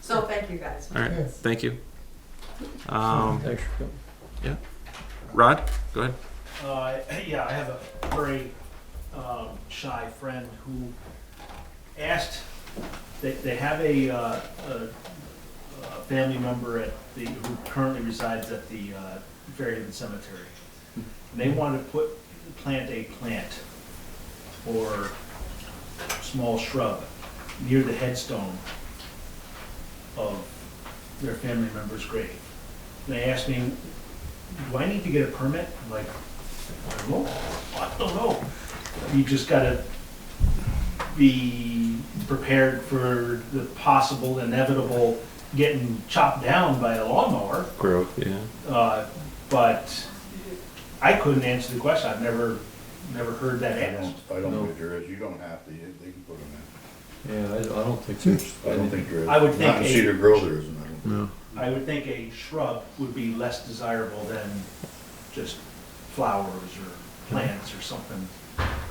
thank you guys. All right, Yeah. thank you. Um, Thanks. Rod, go ahead. Uh, yeah, I have a very um, shy friend who asked. They, they have a, uh, a, a family member at the who currently resides at the uh, Fairhaven Cemetery. And they wanted to put plant a plant or small shrub near the headstone of their family member's grave. And they asked me, "Do I need to get a permit?" I'm like, I don't know. I don't know. You just gotta be prepared for the possible inevitable getting chopped down by a lawnmower. Grove. Yeah. Uh, but I couldn't answer the question. I've never, never heard that I asked. don't, I don't No. think there is, you don't have to, You- they can put them Yeah, I, I don't think so. in. I don't think there is. I would Not in think a- Cedar Grove there isn't, I don't think. No. I would think a shrub would be less desirable than just flowers or plants or something.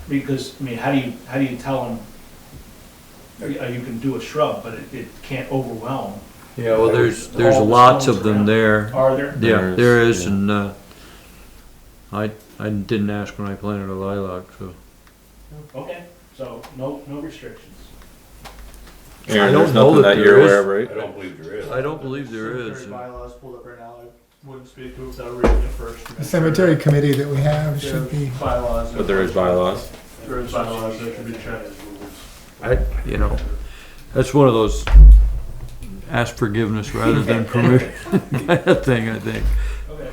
Because, I mean, how do you, how do you tell them, you uh, you can do a shrub, but it, it can't overwhelm. Yeah, well, there's, All there's the lots stones of them around. there. Are there? Yeah, There there is, is, yeah. and, uh, I, I didn't ask when I planted a lilac, so. Okay, so no, no restrictions. Aaron, don't there's know nothing that that you're there aware I don't believe there is. I don't believe there is. Cemetery bylaws pulled up right now, I wouldn't speak to it without reading it first. The cemetery committee that we have There are should be, Bylaws. But there is bylaws. There is bylaws that should be checked. I, you know, that's one of those ask forgiveness rather than permission kind of thing, I think. Okay.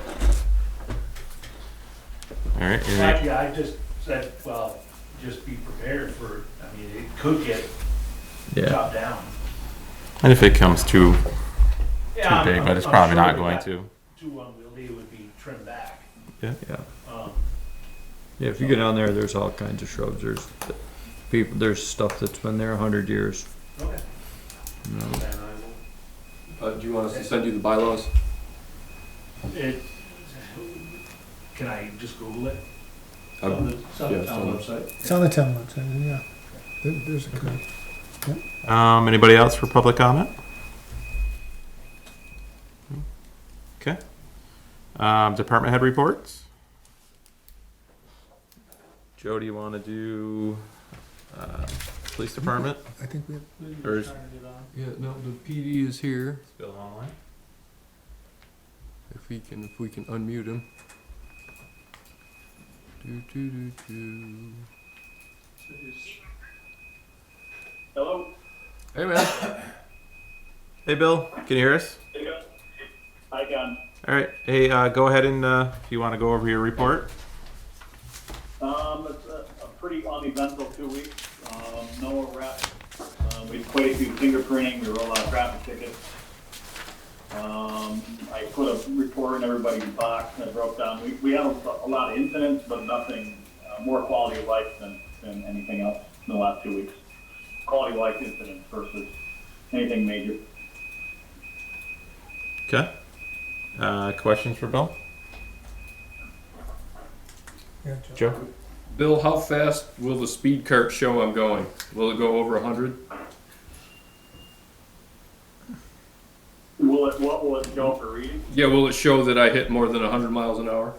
All right. In any- fact, yeah, I just said, well, just be prepared for, I mean, it could get Yeah, chopped down. And if it comes too too Yeah, I'm- big, but it's I'm- probably I'm sure not that going that to. Too unwieldy, it would be trimmed back. yeah. Um, Yeah, if you go down there, there's all kinds of shrubs. There's people, there's stuff that's been there a hundred years. okay, you know. then I will Uh, do you want us to send you the bylaws? It, can I just Google it? Um, On the yeah, Summit Town it's website. it's on the town website, yeah. There- There's a committee. Um, anybody else for public comment? Okay. Um, department head reports. Joe, do you want to do uh, police department? I think we have, Or is- Yeah, no, the PD is here. Bill online. If we can, if we can unmute him. Do, do, do, do. Hello? Hey, man. Hey, Bill, can you hear us? Hi, Gun. All right. Hey, uh, go ahead and uh, if you want to go over your report. Um, it's a, a pretty uneventful two weeks, um, no arrests. Um, we had quite a few fingerprinting, we rolled out traffic tickets. Um, I put a report in everybody's box and I broke down, we, we had a, a lot of incidents, but nothing, uh, more quality of life than, than anything else in the last two weeks. Quality of life incidents versus anything major. Okay. Uh, questions for Bill? yeah, Joe. Bill, how fast will the speed cart show I'm going? Will it go over 100? Will it, what will it go for reading? Yeah, will it show that I hit more than 100 miles an hour?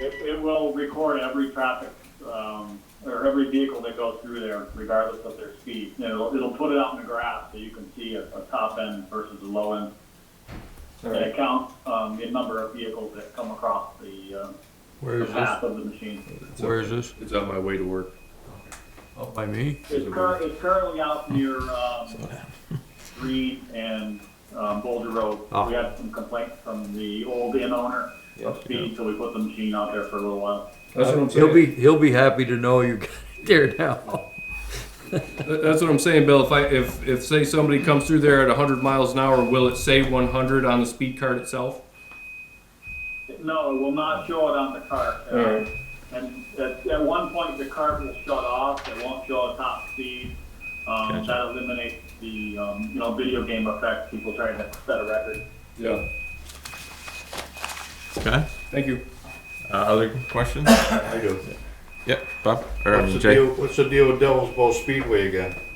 It, it will record every traffic, um, or every vehicle that goes through there regardless of their speed. And It'll, it'll put it out in the graph so you can see a, a top end versus a low end. All And right. it counts, um, the number of vehicles that come across the, uh, Where the is this? path of the machine. Where is this? It's on my way to work. Up by me? It's cur, it's currently out near, um, Reed and, um, Boulder Road. Ah. We had some complaints from the old inn owner of speed, so we put the machine out there for a little while. That's what I'm saying. He'll be, he'll be happy to know you got it there now. That- That's what I'm saying, Bill. If I, if, if say somebody comes through there at 100 miles an hour, will it say 100 on the speed cart itself? No, it will not show it on the cart. Uh, All right. And at, at one point, the cart will shut off, it won't show a top speed. Um, Gotcha. that eliminates the, um, you know, video game effect, people trying to set a record. Yeah. Okay. Thank you. Uh, other questions? I do. yep. Bob or um, What's the Jay. deal, what's the deal with Devil's Bowl Speedway again?